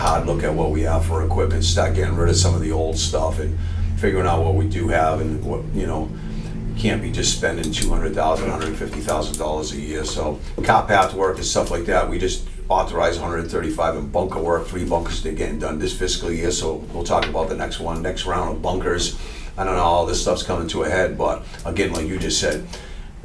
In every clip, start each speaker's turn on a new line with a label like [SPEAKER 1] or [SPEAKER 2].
[SPEAKER 1] hard look at what we have for equipment, start getting rid of some of the old stuff and figuring out what we do have and what, you know, can't be just spending two hundred thousand, hundred and fifty thousand dollars a year, so cop path work and stuff like that, we just authorize hundred and thirty-five and bunker work, three bunkers they're getting done this fiscal year, so we'll talk about the next one, next round of bunkers. I don't know, all this stuff's coming to a head, but again, like you just said,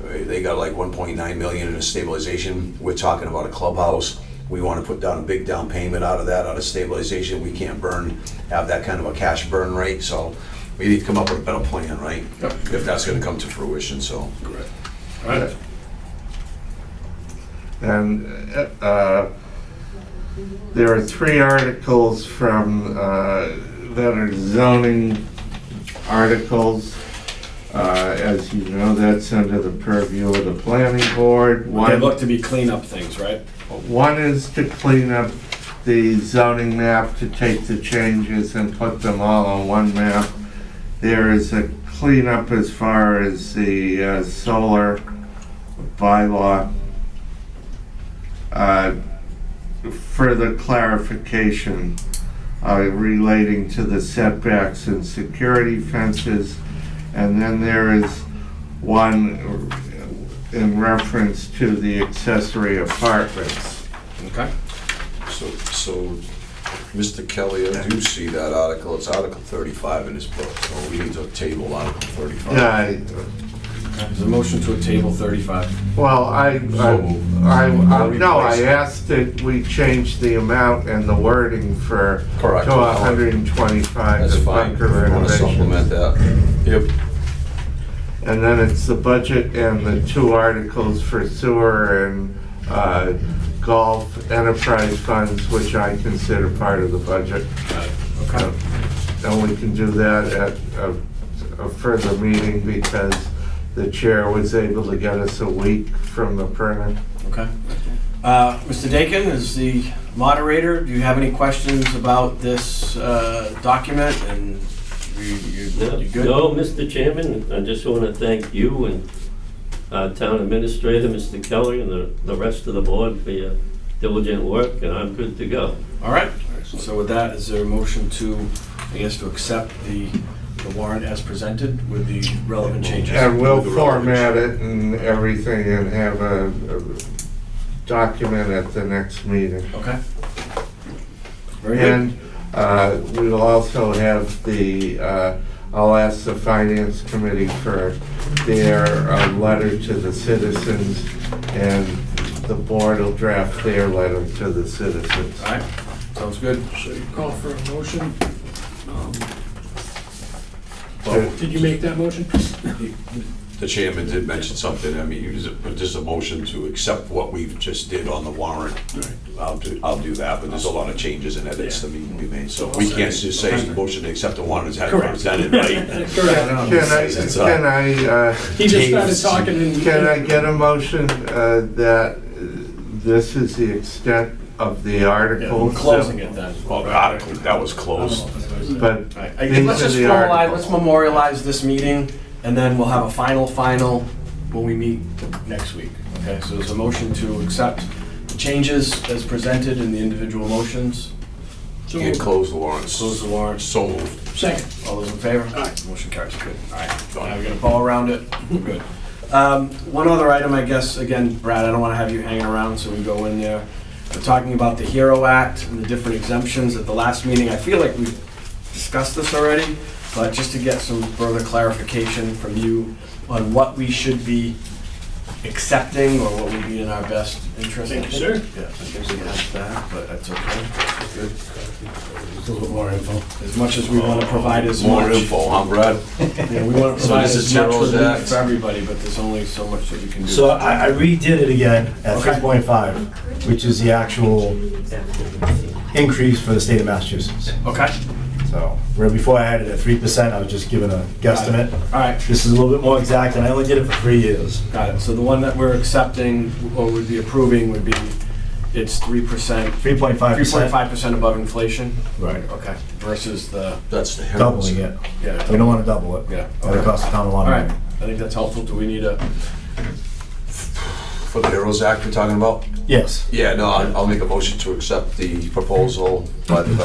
[SPEAKER 1] uh, they got like one point nine million in a stabilization, we're talking about a clubhouse. We wanna put down a big down payment out of that, out of stabilization, we can't burn, have that kind of a cash burn rate, so we need to come up with a better plan, right?
[SPEAKER 2] Yep.
[SPEAKER 1] If that's gonna come to fruition, so.
[SPEAKER 2] Correct. All right.
[SPEAKER 3] And uh, uh, there are three articles from, uh, that are zoning articles. Uh, As you know, that's under the purview of the planning board.
[SPEAKER 2] They
[SPEAKER 3] One,
[SPEAKER 2] look to be clean up things, right?
[SPEAKER 3] one is to clean up the zoning map, to take the changes and put them all on one map. There is a cleanup as far as the uh, solar bylaw. Uh, Further clarification uh, relating to the setbacks and security fences. And then there is one in reference to the accessory apartments.
[SPEAKER 2] Okay.
[SPEAKER 1] So, so, Mr. Kelly, I do see that article, it's Article thirty-five in his book, so we need to table Article thirty-five.
[SPEAKER 3] Yeah,
[SPEAKER 2] There's a motion to a table thirty-five.
[SPEAKER 3] well, I,
[SPEAKER 1] So moved.
[SPEAKER 3] I, I, no, I
[SPEAKER 1] Replace it.
[SPEAKER 3] asked that we change the amount and the wording for,
[SPEAKER 1] Correct.
[SPEAKER 3] to hundred and twenty-five
[SPEAKER 1] That's
[SPEAKER 3] of
[SPEAKER 1] fine, if
[SPEAKER 3] bunker
[SPEAKER 1] you wanna supplement
[SPEAKER 3] renovations.
[SPEAKER 1] that. Yep.
[SPEAKER 3] And then it's the budget and the two articles for sewer and, uh, golf enterprise funds, which I consider part of the budget.
[SPEAKER 2] Got it. Okay.
[SPEAKER 3] Uh, And we can do that at a, a further meeting because the chair was able to get us a week from the printer.
[SPEAKER 2] Okay. Uh, Mr. Dakin is the moderator. Do you have any questions about this uh, document? And you, you, you good?
[SPEAKER 4] No, Mr. Chairman, I just want to thank you and our town administrator, Mr. Kelly, and the, the rest of the board for your diligent work, and I'm good to go.
[SPEAKER 2] All right. So with that, is there a motion to, I guess, to accept the the warrant as presented with the relevant changes?
[SPEAKER 3] And we'll
[SPEAKER 1] With the relevant-
[SPEAKER 3] format it and everything and have a, a document at the next meeting.
[SPEAKER 2] Okay. Very good.
[SPEAKER 3] And, uh, we'll also have the, uh, I'll ask the finance committee for their, uh, letter to the citizens and the board will draft their letter to the citizens.
[SPEAKER 2] All right. Sounds good.
[SPEAKER 5] So you call for a motion. Um,
[SPEAKER 3] Well-
[SPEAKER 5] Did you make that motion?
[SPEAKER 1] The chairman did mention something, I mean, it was a- just a motion to accept what we've just did on the warrant. I'll do, I'll do that, but there's a lot of changes and edits that need to be made, so we can't just say motion to accept the warrant as had
[SPEAKER 5] Correct.
[SPEAKER 1] presented, right?
[SPEAKER 5] Correct.
[SPEAKER 3] Can I,
[SPEAKER 1] It's, uh,
[SPEAKER 3] can I, uh,
[SPEAKER 5] He just started talking and.
[SPEAKER 3] Can I get a motion uh, that uh, this is the extent of the
[SPEAKER 2] Yeah, We're
[SPEAKER 3] articles?
[SPEAKER 2] closing it then.
[SPEAKER 1] Well, the article, that was closed.
[SPEAKER 3] But
[SPEAKER 2] All right, I-
[SPEAKER 3] These
[SPEAKER 2] Let's
[SPEAKER 3] are
[SPEAKER 2] just
[SPEAKER 3] the
[SPEAKER 2] formalize,
[SPEAKER 3] articles.
[SPEAKER 2] let's memorialize this meeting, and then we'll have a final, final when we meet next week. Okay, so there's a motion to accept the changes as presented in the individual motions.
[SPEAKER 5] So
[SPEAKER 1] Can't
[SPEAKER 5] moved.
[SPEAKER 1] close the warrants.
[SPEAKER 2] Close the warrants.
[SPEAKER 1] So moved.
[SPEAKER 5] Second.
[SPEAKER 2] All those in favor?
[SPEAKER 5] Aye.
[SPEAKER 2] Motion carries. Good. All right.
[SPEAKER 1] Done.
[SPEAKER 2] Now we got a ball around it. We're Good. Um, One other item, I guess, again, Brad, I don't want to have you hanging around, so we go in there. We're talking about the HERO Act and the different exemptions at the last meeting. I feel like we've discussed this already, but just to get some further clarification from you on what we should be accepting or what would be in our best interest.
[SPEAKER 5] Thank you, sir.
[SPEAKER 2] Yeah, I think we have that, but that's okay. Good.
[SPEAKER 5] A little more info.
[SPEAKER 2] As much as we want to provide as much.
[SPEAKER 1] More info, huh, Brad?
[SPEAKER 2] Yeah, we want to
[SPEAKER 1] So
[SPEAKER 2] provide
[SPEAKER 1] this is
[SPEAKER 2] as much
[SPEAKER 1] Zero's
[SPEAKER 2] relief
[SPEAKER 1] Act.
[SPEAKER 2] for everybody, but there's only so much that we can do.
[SPEAKER 6] So I I redid it again at
[SPEAKER 2] Okay.
[SPEAKER 6] 3.5, which is the actual increase for the state of Massachusetts.
[SPEAKER 2] Okay,
[SPEAKER 6] So where before I had it at 3%, I was just given a guesstimate.
[SPEAKER 2] all right,
[SPEAKER 6] This is a little bit more exact, and I only did it for three years.
[SPEAKER 2] got it. So the one that we're accepting or would be approving would be, it's three percent,
[SPEAKER 6] 3.5%.
[SPEAKER 2] three point five percent above inflation?
[SPEAKER 6] Right.
[SPEAKER 2] Okay, versus the,
[SPEAKER 1] That's the heralds.
[SPEAKER 6] Doubling it. We
[SPEAKER 2] yeah,
[SPEAKER 6] don't want to double it.
[SPEAKER 2] yeah.
[SPEAKER 6] That would cost the town a
[SPEAKER 2] All
[SPEAKER 6] lot of
[SPEAKER 2] right,
[SPEAKER 6] money.
[SPEAKER 2] I think that's helpful. Do we need a
[SPEAKER 1] for the Heroes Act we're talking about?
[SPEAKER 6] Yes.
[SPEAKER 1] Yeah, no, I'll I'll make a motion to accept the proposal, but uh,